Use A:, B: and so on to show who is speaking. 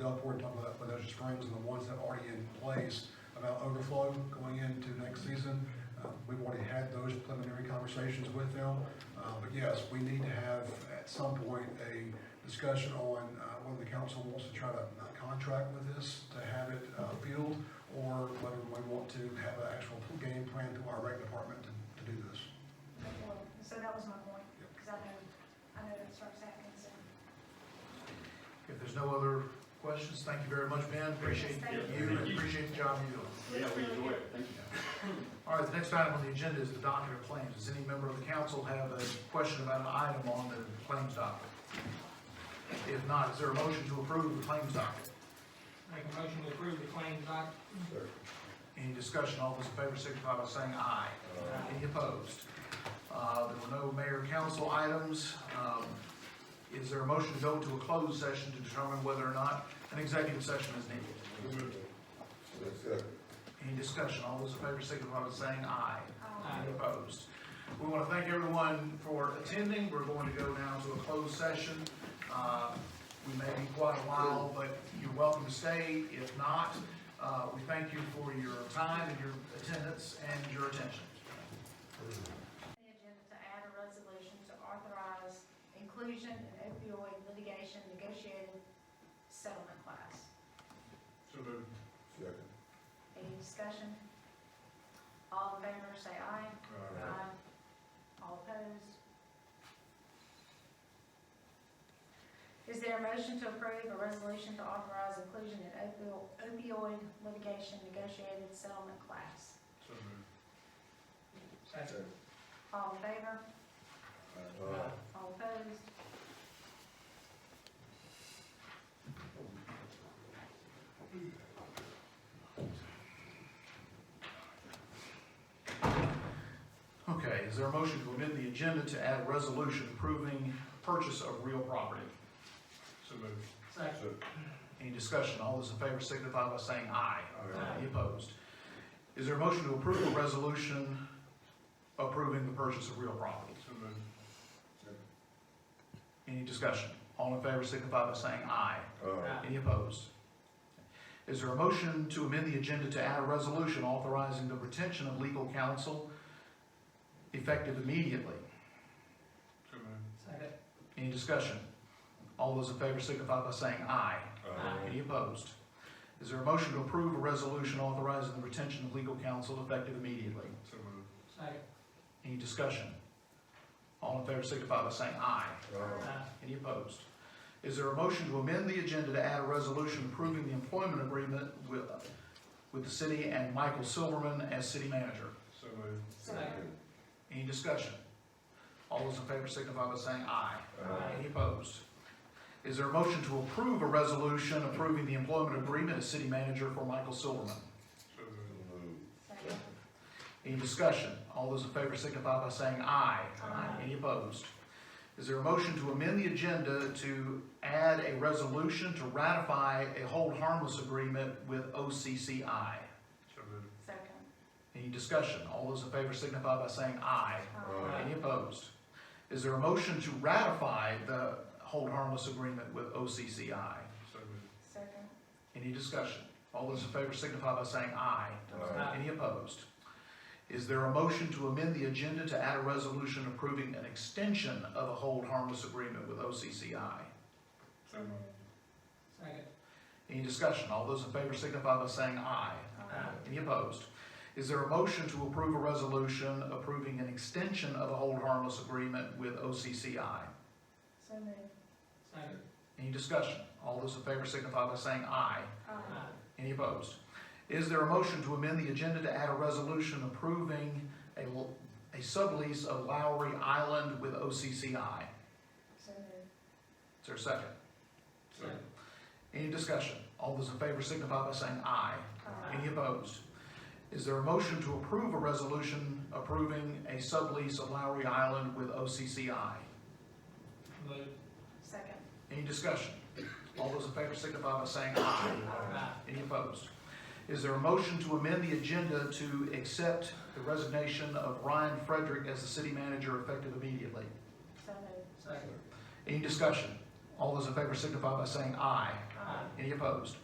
A: Gulfport, talking about Bonita Springs and the ones that are already in place about overflow going into next season. Uh, We've already had those preliminary conversations with them. Uh, But yes, we need to have at some point a discussion on uh, whether the council wants to try to uh, contract with this to have it uh, field or whether we want to have an actual game plan through our rec department to- to do this.
B: Well, So that was my point, because I know, I know that starts happening, so.
C: If there's no other questions, thank you very much, Ben. Appreciate
B: Thank
C: you and appreciate the job you're doing.
D: Yeah, we enjoy it, thank you.
C: All right, the next item on the agenda is the docket of claims. Does any member of the council have a question about an item on the claims docket? If not, is there a motion to approve the claims docket?
E: Make a motion to approve the claims doc.
C: Any discussion, all those in favor signify by saying aye. Any opposed? Uh, There were no mayor and council items. Um, Is there a motion to go into a closed session to determine whether or not an executive session is needed? Any discussion, all those in favor signify by saying aye.
B: um,
E: Aye.
C: Any opposed? We want to thank everyone for attending. We're going to go now to a closed session. Uh, We may be quite a while, but you're welcome to stay. If not, uh, we thank you for your time and your attendance and your attention.
B: the agenda to add a resolution to authorize inclusion in opioid litigation negotiated settlement class.
D: So moved.
B: Any discussion? All in favor, say aye. Aye. Uh, All opposed? Is there a motion to approve a resolution to authorize inclusion in opio- opioid litigation negotiated settlement class?
D: So moved.
E: Second.
B: All in favor? All opposed?
C: Okay, is there a motion to amend the agenda to add a resolution approving purchase of real property?
D: So moved.
E: Second.
C: Any discussion? All those in favor signify by saying aye.
E: Aye.
C: Any opposed? Is there a motion to approve a resolution approving the purchase of real property?
D: So moved.
C: Any discussion? All in favor signify by saying aye. Any opposed? Is there a motion to amend the agenda to add a resolution authorizing the retention of legal counsel effective immediately?
D: So moved.
E: Second.
C: Any discussion? All those in favor signify by saying aye.
E: Aye.
C: Any opposed? Is there a motion to approve a resolution authorizing the retention of legal counsel effective immediately?
D: So moved.
E: Second.
C: Any discussion? All in favor signify by saying aye.
E: Aye.
C: Any opposed? Is there a motion to amend the agenda to add a resolution approving the employment agreement with, with the city and Michael Silverman as city manager?
D: So moved.
E: Second.
C: Any discussion? All those in favor signify by saying aye.
E: Aye.
C: Any opposed? Is there a motion to approve a resolution approving the employment agreement as city manager for Michael Silverman?
D: So moved.
B: Second.
C: Any discussion? All those in favor signify by saying aye.
B: Aye.
C: Any opposed? Is there a motion to amend the agenda to add a resolution to ratify a hold harmless agreement with OCCI?
D: So moved.
B: Second.
C: Any discussion? All those in favor signify by saying aye.
B: Um,
E: Aye.
C: Any opposed? Is there a motion to ratify the hold harmless agreement with OCCI?
D: So moved.
B: Second.
C: Any discussion? All those in favor signify by saying aye.
E: Aye.
C: Any opposed? Is there a motion to amend the agenda to add a resolution approving an extension of a hold harmless agreement with OCCI?
D: So moved.
E: Second.
C: Any discussion? All those in favor signify by saying aye.
B: Um,
C: Any opposed? Is there a motion to approve a resolution approving an extension of a hold harmless agreement with OCCI?
B: So moved.
E: Second.
C: Any discussion? All those in favor signify by saying aye.
B: Um,
E: Aye.
C: Any opposed? Is there a motion to amend the agenda to add a resolution approving a l- a sublease of Lowry Island with OCCI?
B: So moved.
C: Is there a second?
E: Second.
C: Any discussion? All those in favor signify by saying aye.
B: Um,
C: Any opposed? Is there a motion to approve a resolution approving a sublease of Lowry Island with OCCI?
E: Move.
B: Second.
C: Any discussion? All those in favor signify by saying aye.
E: Aye.
C: Any opposed? Is there a motion to amend the agenda to accept the resignation of Ryan Frederick as the city manager effective immediately?
B: So moved.
E: Second.
C: Any discussion? All those in favor signify by saying aye.
B: Aye.
C: Any opposed?